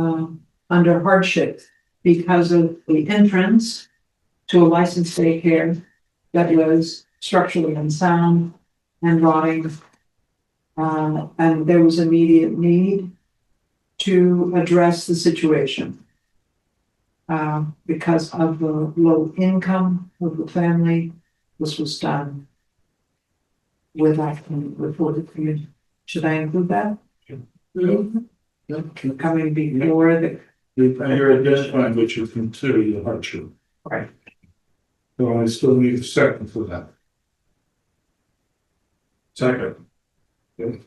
um, under hardship because of the entrance to a licensed daycare that was structurally unsound and rotting. Uh, and there was immediate need to address the situation. Uh, because of the low income of the family, this was done without being reported to you. Should I include that? Mm-hmm. Coming before the You're identifying what you consider the hardship. Right. So I still need a second for that. Second. Okay.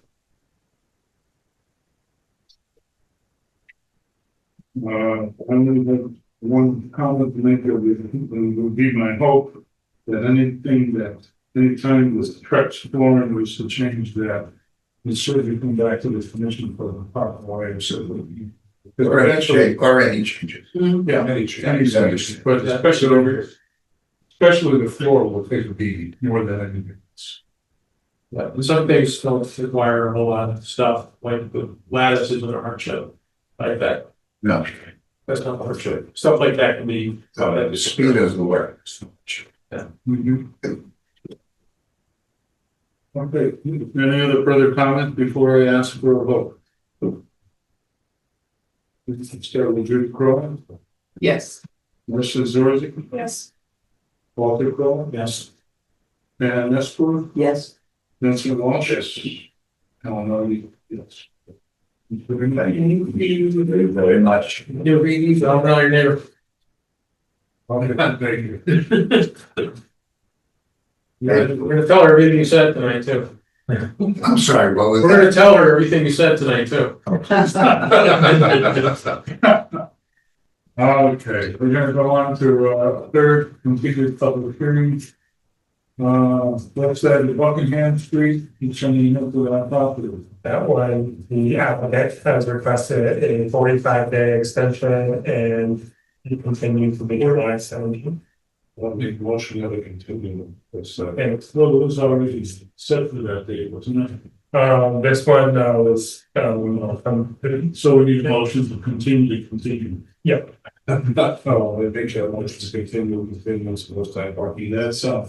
Uh, I only have one comment to make, it would, it would be my hope that anything that, anytime was stretched for and was to change that, it should come back to the commission for the proper way, so that we. Or any change, or any changes. Yeah, Any any changes. changes, but especially over, especially the floor will take a beating more than anything else. Yeah, and some things don't require a whole lot of stuff, like the lattice isn't a hardship, like that, No, that's not a hardship, stuff like that can be. so the speed is the word. Mm-hmm. Okay, any other further comments before I ask for a vote? Let's start with Judy Crowe, Yes. Marissa Zorzi, Yes. Walter Crowe, Yes, and Esper, Yes. Nancy Walsh. Yes. Helen Harvey, yes. Thank you very much. you'll read these, I don't know your neighbor. Okay, thank you. We're gonna- we're gonna tell her everything you said tonight too, I'm sorry, what was we're gonna tell her everything you said tonight too. that? Okay, we're gonna go on to uh third completed public hearing. Uh, left side of Buckingham Street, concerning Hillside Island property. That one, the applicant has requested a forty-five day extension and he continued to be July seventeenth. Let me motion that we continue this. uh, And Well, it was already set for that day, wasn't it? um, this one uh, was, um, from, So we need a motion to continue, to continue. Yep. Oh, I think that motion to continue, continue, it's supposed to have parking, that's uh.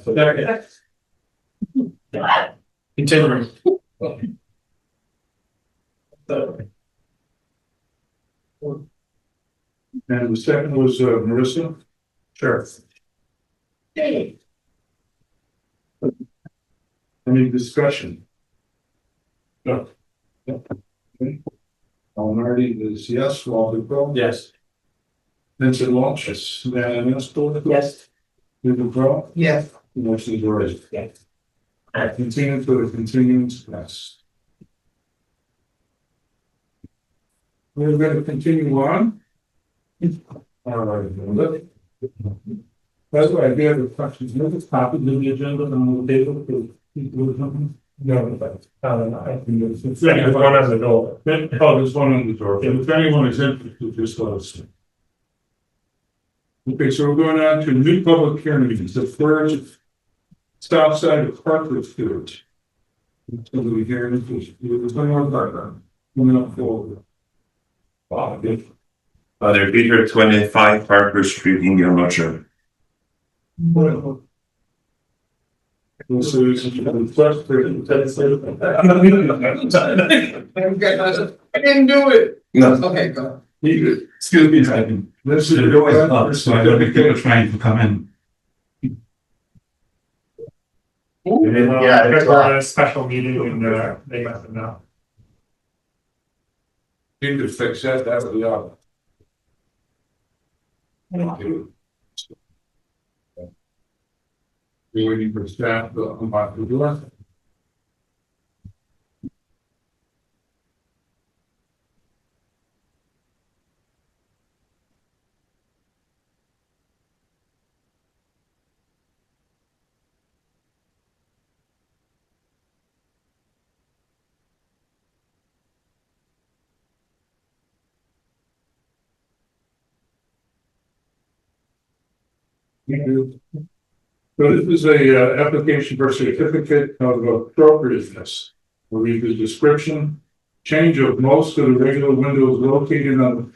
Continuing. And the second was uh Marissa. sure. Any discussion? No. Okay. Alan Hardy is yes, Walter Crowe. Yes. Vincent Walsh, yes, Marion Esposito. Yes. David Crowe, Yes. motion is raised. Yes. Uh, Continue for the continuance, yes. We're gonna continue on. All right, look. That's why I gave the questions, you know, this topic in the agenda on the table for people or something. No, but, um, I think Yes, if there's anyone- one on the door. Oh, there's one on the door. If anyone is interested, just let us know. Okay, so we're going on to new public hearings, the first south side of Hartford Field. So we hear this, is- there's one more background, coming up forward. Wow, good. Father Peter, twenty-five Harper Street, Indian Ocean. Well, This is the first hearing. I didn't do it. No. Okay, go. Excuse me, second. This is. The door is up, so I don't think they were trying to come in. Yeah, Uh, it's a there's lot. a special meeting and uh, they must have known. Need to fix that, that would be all. Do we need for staff to unlock the door? So this is a uh, application for certificate of appropriateness. We'll read the description. Change of most of the regular windows located on the